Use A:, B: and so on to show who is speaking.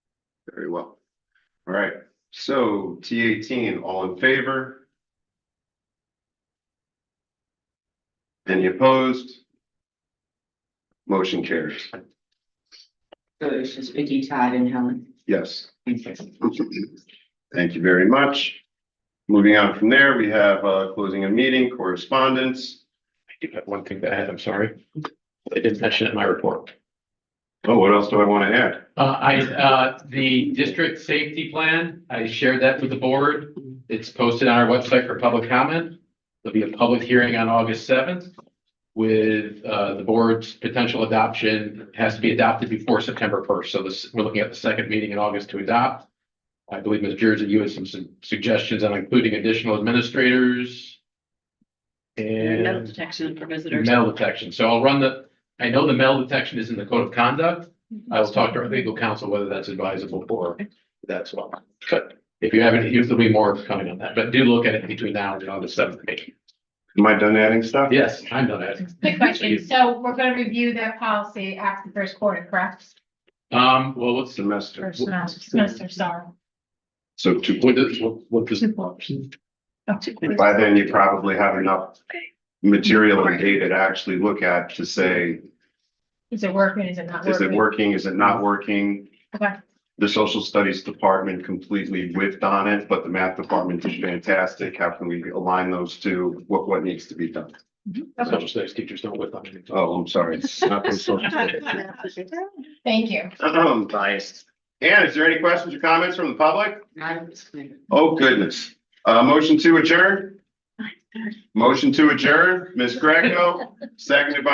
A: Very well. All right, so T eighteen, all in favor? Any opposed? Motion carries.
B: So it's just Vicky, Todd and Helen.
A: Yes.
B: Okay.
A: Thank you very much. Moving on from there, we have uh closing a meeting correspondence.
C: I do have one thing to add, I'm sorry. I didn't mention it in my report.
A: Oh, what else do I want to add?
C: Uh, I, uh, the district safety plan, I shared that with the board. It's posted on our website for public comment. There'll be a public hearing on August seventh with, uh, the board's potential adoption It has to be adopted before September first. So this, we're looking at the second meeting in August to adopt. I believe Ms. Jersey, you had some su- suggestions on including additional administrators. And.
D: Metal detection for visitors.
C: Metal detection. So I'll run the, I know the metal detection is in the code of conduct. I will talk to our legal counsel whether that's advisable or that's what. But if you haven't, there'll be more coming on that, but do look at it between now and August seventh meeting.
A: Am I done adding stuff?
C: Yes, I'm done adding.
E: Quick question, so we're gonna review that policy after the first quarter, correct?
C: Um, well, what's the,
A: Semester.
E: First semester, semester, sorry.
A: So to,
C: what does, what does,
A: by then you probably have enough
D: Okay.
A: material and data to actually look at to say,
E: Is it working, is it not
A: is it
E: working?
A: working, is it not working?
E: Okay.
A: The social studies department completely whiffed on it, but the math department did fantastic. How can we align those two? What, what needs to be done?
C: social studies teachers don't whip on anything.
A: Oh, I'm sorry. It's not from social studies.
E: Thank you.
A: I'm biased. And is there any questions or comments from the public?
B: Madam Secretary.
A: Oh, goodness. Uh, motion to adjourn? Motion to adjourn, Ms. Greco, seconded by